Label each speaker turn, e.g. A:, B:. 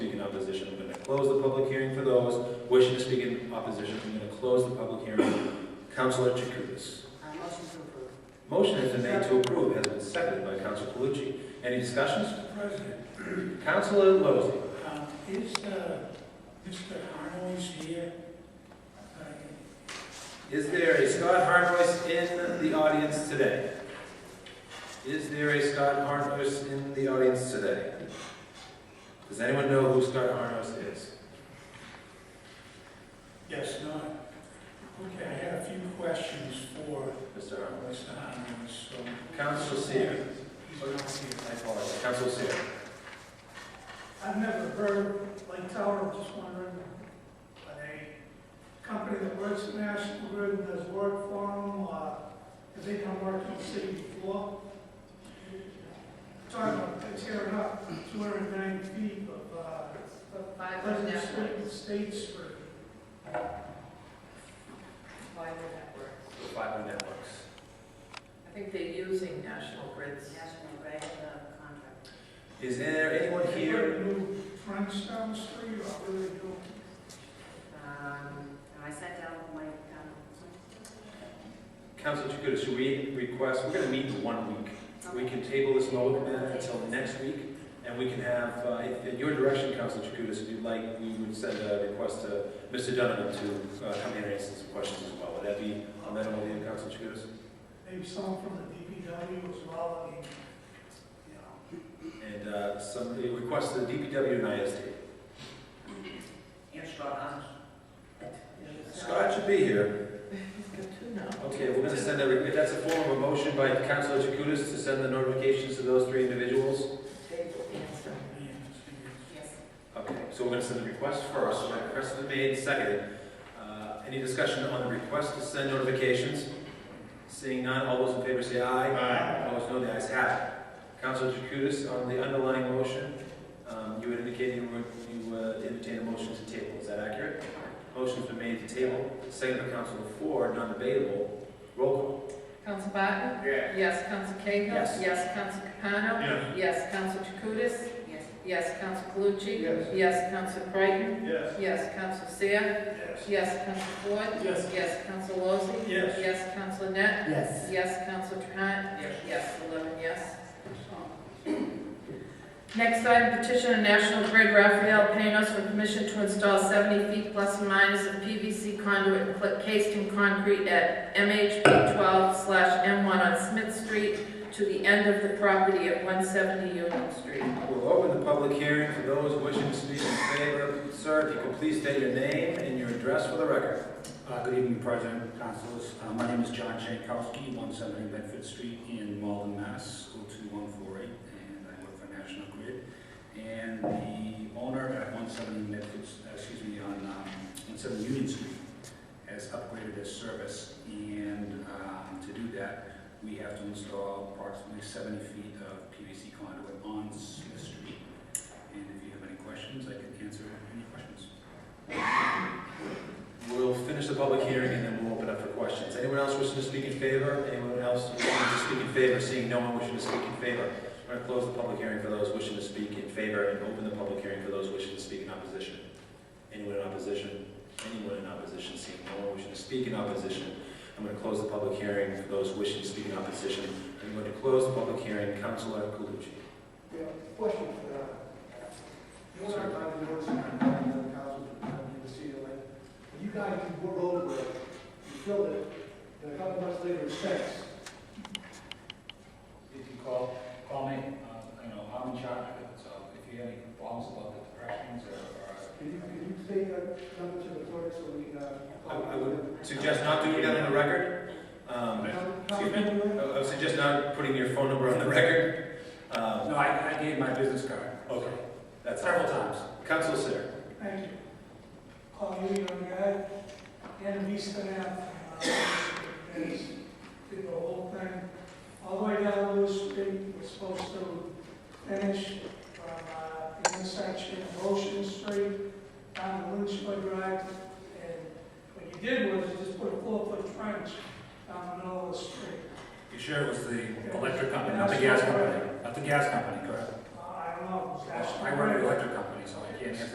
A: close the public hearing for those wishing to speak in opposition. I'm going to close the public hearing. Counselor Chakoudas.
B: Uh, motion to approve.
A: Motion has been made to approve, has been seconded by Counselor Calucci. Any discussions?
C: Mr. President,
A: Counselor Lozey.
C: um, is, uh, Mr. Arnold's here? Uh,
A: Is there a Scott Harnois in the audience today? Is there a Scott Harnois in the audience today? Does anyone know who Scott Harnois is?
C: Yes, not. Okay, I had a few questions for
A: Mr. Harnois.
C: Mr. Arnold, so.
A: Council Seer.
C: He's not here.
A: I apologize. Council Seer.
C: I've never heard Lake Tower, I'm just wondering, are they a company that works in National Grid and does work for them, or have they done work in the city before? Talking about tearing up two hundred and nine feet of, uh,
B: Five would
C: Pleasant
B: that work?
C: Street and State Street.
B: Why would that work?
A: Five New Networks.
D: I think they're using National Grid's.
B: National Grid, uh, contract.
A: Is there anyone
C: They
A: here?
C: put a new French down the street, or really do?
B: Um, and I sat down with my, um,
A: Council Chakutis, should we request, we're going to meet in one week. We can table this motion until next week, and we can have, uh, if- in your direction, Council Chakutis, if you'd like, we would send a request to Mr. Donovan to uh, come in and answer some questions as well. Would that be amenable to you, Council Chakutis?
C: Maybe someone from the DPW as well, I mean, you know.
A: And uh, some, a request to the DPW and ISD.
B: And Scott Hans.
A: Scott should be here.
D: Got two now.
A: Okay, we're gonna send a, if that's a form of a motion by Councilor Chakoudas to send the notifications to those three individuals?
D: Table answer.
B: Yes.
A: Okay, so we're gonna send the request first, my request has been made, seconded. Uh, Any discussion on the request to send notifications? Seeing none, all those in favor say aye.
C: Aye.
A: Opposed, no, the ayes have it. Councilor Chakoudas, on the underlying motion, um, you had indicated you were- you uh, entertain a motion to table, is that accurate? Motion's been made to table, seconded by Councilor Ford, non-debatable. Roll call.
D: Council Barton?
A: Yes.
D: Yes, Council Cahill?
A: Yes.
D: Council Capano?
C: Yes.
D: Yes, Council Jacutis?
B: Yes.
D: Yes, Council Calucci?
C: Yes.
D: Yes, Council Creighton?
C: Yes.
D: Yes, Council Seer?
C: Yes.
D: Yes, Council Ford?
C: Yes.
D: Yes, Council Lozey?
C: Yes.
D: Yes, Council Net?
B: Yes.
D: Yes, Council Trahan?
B: Yes.
D: Yes, eleven yes. Next item, petition of National Grid Rafael Panos for permission to install 70 feet plus or minus of PVC conduit and pla- cased in concrete at MHP 12/M1 on Smith Street to the end of the property at 170 Union Street.
A: We'll open the public hearing for those wishing to speak in favor. Sir, if you could please state your name and your address for the record.
E: Uh, Good evening, President, councilors. Uh, My name is John Jankowski, 170 Bedford Street in Malden, Mass. 02148, and I work for National Grid. And the owner at 170 Bedford, uh, excuse me, on um, 170 Union Street has upgraded his service. And um, to do that, we have to install approximately 70 feet of PVC conduit on Smith Street. And if you have any questions, I can answer any questions.
A: We'll finish the public hearing and then we'll open up for questions. Anyone else wishing to speak in favor? Anyone else wishing to speak in favor? Seeing no one wishing to speak in favor, we're going to close the public hearing for those wishing to speak in favor and open the public hearing for those wishing to speak in opposition. Anyone in opposition? Anyone in opposition? Seeing no one wishing to speak in opposition, I'm going to close the public hearing for those wishing to speak in opposition. I'm going to close the public hearing. Councilor Calucci.
F: Yeah, question for that. You know, I'm not noticing, I'm not in the council, I'm not in the city, like, when you guys, you were over it, you filled it, and a couple months later, it's fixed.
E: If you call, call me, uh, you know, I'm in charge of it, so if you have any problems about the directions or, or.
F: Can you, can you say that number to the clerk so we, uh?
A: I I would suggest not doing that on the record. Um, excuse me. I I would suggest not putting your phone number on the record. Um,
E: No, I, I gave my business card.
A: Okay, that's
E: Several
A: helpful.
E: times.
A: Council Sir,
C: Thank you. Paul Ewing, I'm guy, and Vista Ave, uh, and did the whole thing. All the way down Lewis Street, we're supposed to finish from uh, the intersection of Ocean Street down to Lynchburg Drive. And what you did was you just put a four-foot trench down the middle of the street.
E: You sure it was the electric company, not the gas company, not the gas company, correct?
C: Uh, I don't know, it was
E: Well,
C: actually.
E: I work for the electric company, so I can't answer